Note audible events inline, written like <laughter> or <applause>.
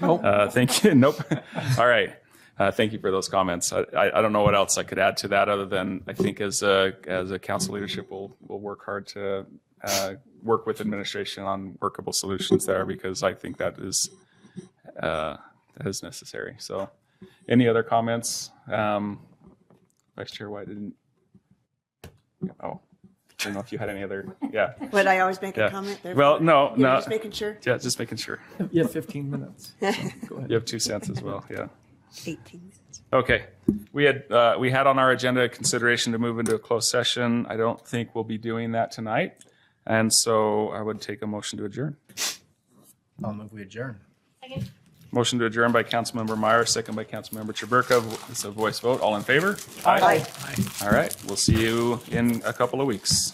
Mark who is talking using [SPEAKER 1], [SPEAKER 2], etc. [SPEAKER 1] Nope. Uh, thank you. <laughs> Nope. All right. Uh, thank you for those comments. I, I, I don't know what else I could add to that other than I think as a, as a council leadership, we'll, we'll work hard to uh, work with administration on workable solutions there because I think that is, uh, that is necessary. So any other comments? Um, Vice Chair White didn't. Oh, I don't know if you had any other, yeah.
[SPEAKER 2] Would I always make
[SPEAKER 1] Yeah.
[SPEAKER 2] a comment there?
[SPEAKER 1] Well, no,
[SPEAKER 2] You know,
[SPEAKER 1] no.
[SPEAKER 2] Just making sure.
[SPEAKER 1] Yeah, just making sure.
[SPEAKER 3] You have 15 minutes. so go ahead.
[SPEAKER 1] You have two cents as well, yeah.
[SPEAKER 2] 18 minutes.
[SPEAKER 1] Okay. We had, uh, we had on our agenda consideration to move into a closed session. I don't think we'll be doing that tonight. And so I would take a motion to adjourn.
[SPEAKER 3] I'll move we adjourn.
[SPEAKER 1] Motion to adjourn by Councilmember Meyer, second by Councilmember Traburka. It's a voice vote. All in favor?
[SPEAKER 2] Aye.
[SPEAKER 1] All right. We'll see you in a couple of weeks.